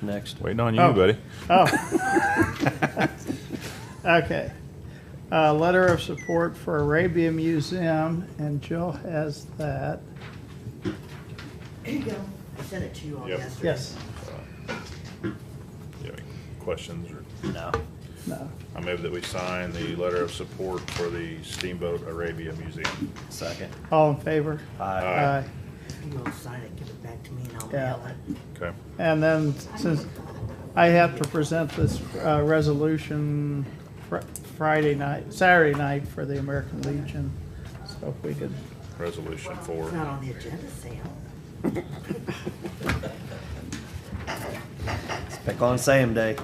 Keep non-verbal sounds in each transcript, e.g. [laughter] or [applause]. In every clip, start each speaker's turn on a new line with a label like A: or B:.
A: next.
B: Waiting on you,
C: Oh.
B: buddy.
C: Oh. Okay. Uh, letter of support for Arabia Museum, and Jill has that.
D: There you go. I sent it to you all
B: Yep.
D: yesterday.
C: Yes,
B: You have any questions? Or
A: No.
C: no,
B: I move that we sign the letter of support for the Steamboat Arabia Museum.
A: Second.
C: all in favor?
A: Aye.
B: Aye.
D: You all sign it, give it back to me and I'll
C: Yeah.
D: mail it.
B: Okay.
C: And then, since I have to present this uh, resolution Fri- Friday night, Saturday night for the American Legion, so if we could,
B: Resolution four.
D: It's not on the agenda, Sam.
A: Pick on Sam Day.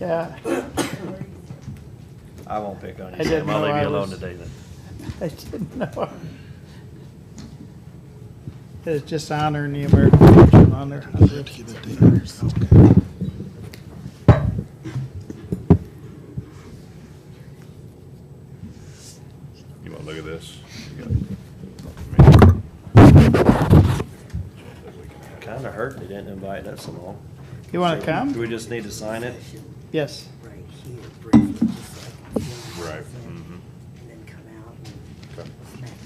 C: yeah, [laughs]
A: I won't pick on
C: I
A: you,
C: didn't
A: Sam. I'll
C: know
A: leave
C: I
A: you alone
C: was-
A: today then.
C: I didn't know. It's just honoring the American Legion on their hundredth.
B: You want to look at this? You got-
A: Kinda hurt they didn't invite us along.
C: You wanna
A: So,
C: come?
A: Do we just need to sign it?
D: Session
C: Yes, [laughs]
D: Right here, briefly, just like. Jill
B: Right.
D: said,
B: mhm.
D: And then come out
B: Okay.
D: and smack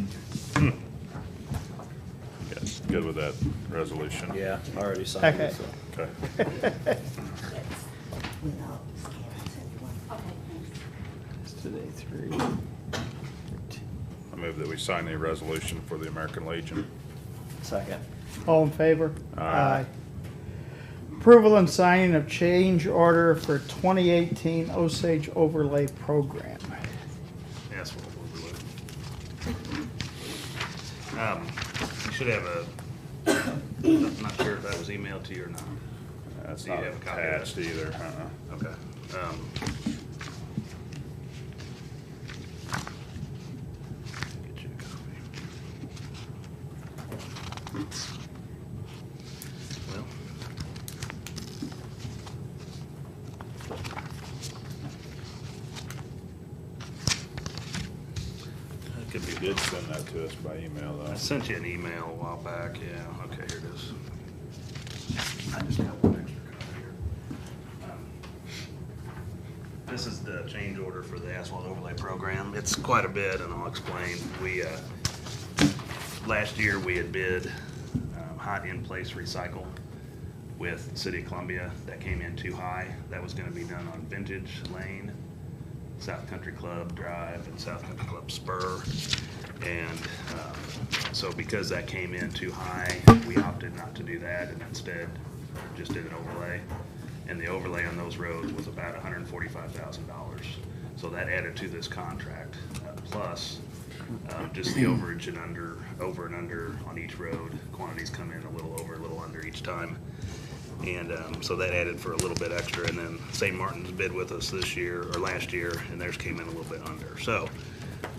D: Mark around.
B: Yes, good with that resolution.
A: Yeah, I already signed it,
C: Okay.
A: so.
B: Okay.
D: Without scanning everyone.
C: it's today three.
B: I move that we sign the resolution for the American Legion.
A: Second.
C: All in favor?
B: Aye.
C: Approval and signing of change order for 2018 Osage Overlay Program.
E: That's what we'll do. Um, you should have a, [coughs] I'm not sure if that was emailed to you or not.
B: That's
E: Do you
B: not
E: have a copy of that?
B: attached either. uh-uh.
E: Okay. Um, Get you a copy. Well. That could
B: You
E: be
B: did send that to us by email, though.
E: I sent you an email a while back, yeah, okay, here it is. I just have one extra copy here. Um, This is the change order for the asphalt overlay program, it's quite a bit, and I'll explain. We, uh, last year, we had bid um, hot in-place recycle with City of Columbia, that came in too high, that was gonna be done on Vintage Lane, South Country Club Drive and South Country Club Spur. And um, so because that came in too high, we opted not to do that and instead just did an overlay. And the overlay on those roads was about hundred and forty-five thousand dollars. So that added to this contract. Uh, Plus, um, just the overage and under, over and under on each road. Quantities come in a little over, a little under each time. And um, so that added for a little bit extra. And then St. Martin's bid with us this year, or last year, and theirs came in a little bit under. So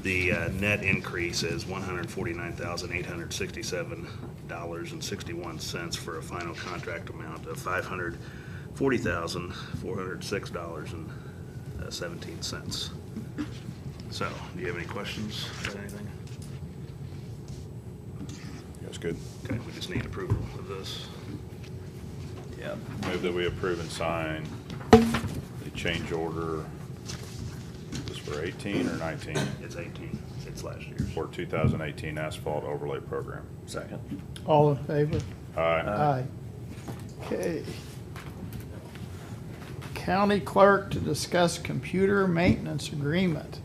E: the uh, net increase is $149,867.61 for a final contract amount of $540,406.17. uh, So, do you have any questions about anything?
B: That's good.
E: Okay, we just need approval of this.
A: Yeah.
B: Move that we approve and sign the change order. This for eighteen or nineteen?
E: It's 18, it's last year's.
B: For two thousand eighteen asphalt overlay program.
A: Second.
C: All in favor?
B: Aye.
C: Aye. Okay. County clerk to discuss computer maintenance agreement.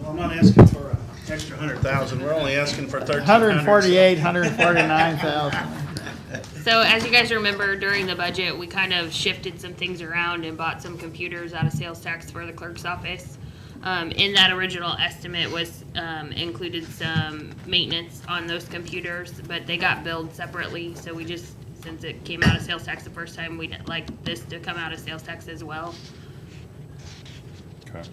F: Well, I'm not asking for an extra hundred thousand, we're only asking for thirteen hundred.
C: 148, 149,000.
G: So as you guys remember, during the budget, we kind of shifted some things around and bought some computers out of sales tax for the clerk's office. Um, in that original estimate was, um, included some maintenance on those computers, but they got billed separately, so we just, since it came out of sales tax the first time, we'd like this to come out of sales tax as well.
B: Okay.